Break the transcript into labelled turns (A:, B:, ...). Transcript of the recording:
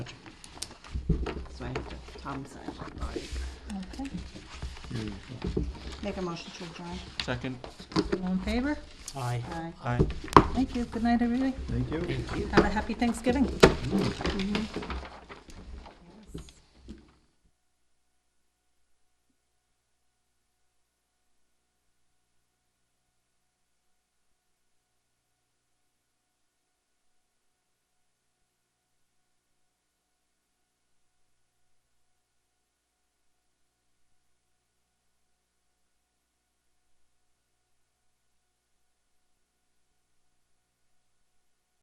A: so I have to, Tom signed it already.
B: Okay,
A: Make a motion to adjourn.
C: Second.
B: all in favor?
D: Aye.
B: Aye.
C: Aye.
B: Thank you, good night, everybody.
E: Thank you.
B: Have a happy Thanksgiving.